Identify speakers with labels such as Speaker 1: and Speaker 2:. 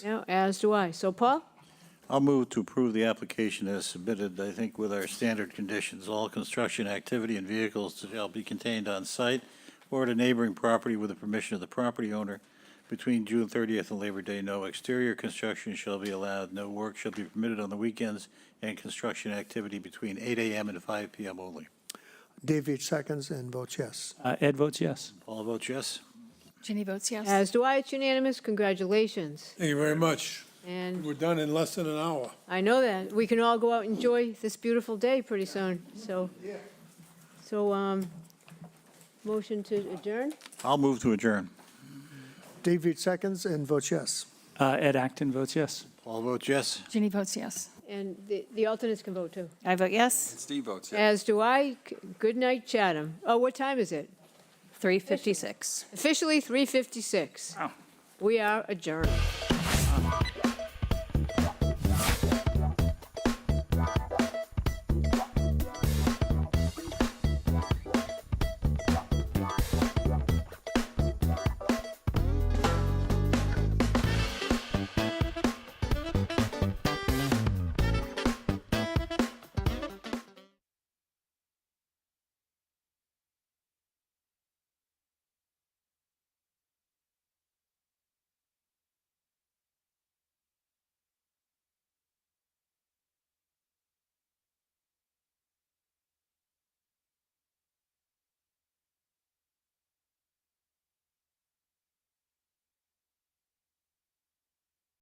Speaker 1: Yeah, as do I. So Paul?
Speaker 2: I'll move to approve the application as submitted, I think with our standard conditions. All construction activity and vehicles shall be contained on site or at a neighboring property with the permission of the property owner. Between June 30th and Labor Day, no exterior construction shall be allowed, no work shall be permitted on the weekends, and construction activity between 8 AM and 5 PM only.
Speaker 3: David seconds and votes yes.
Speaker 4: Uh, Ed votes yes.
Speaker 2: All votes yes?
Speaker 5: Ginny votes yes.
Speaker 1: As do I. It's unanimous. Congratulations.
Speaker 6: Thank you very much.
Speaker 1: And
Speaker 6: We're done in less than an hour.
Speaker 1: I know that. We can all go out and enjoy this beautiful day pretty soon, so. So, um, motion to adjourn?
Speaker 2: I'll move to adjourn.
Speaker 3: David seconds and votes yes.
Speaker 4: Uh, Ed Acton votes yes.
Speaker 2: All votes yes?
Speaker 5: Ginny votes yes.
Speaker 1: And the, the alternates can vote too.
Speaker 7: I vote yes.
Speaker 8: Steve votes yes.
Speaker 1: As do I. C- Good night, Chatham. Oh, what time is it?
Speaker 7: 356.
Speaker 1: Officially 3:56.
Speaker 4: Wow.
Speaker 1: We are adjourned.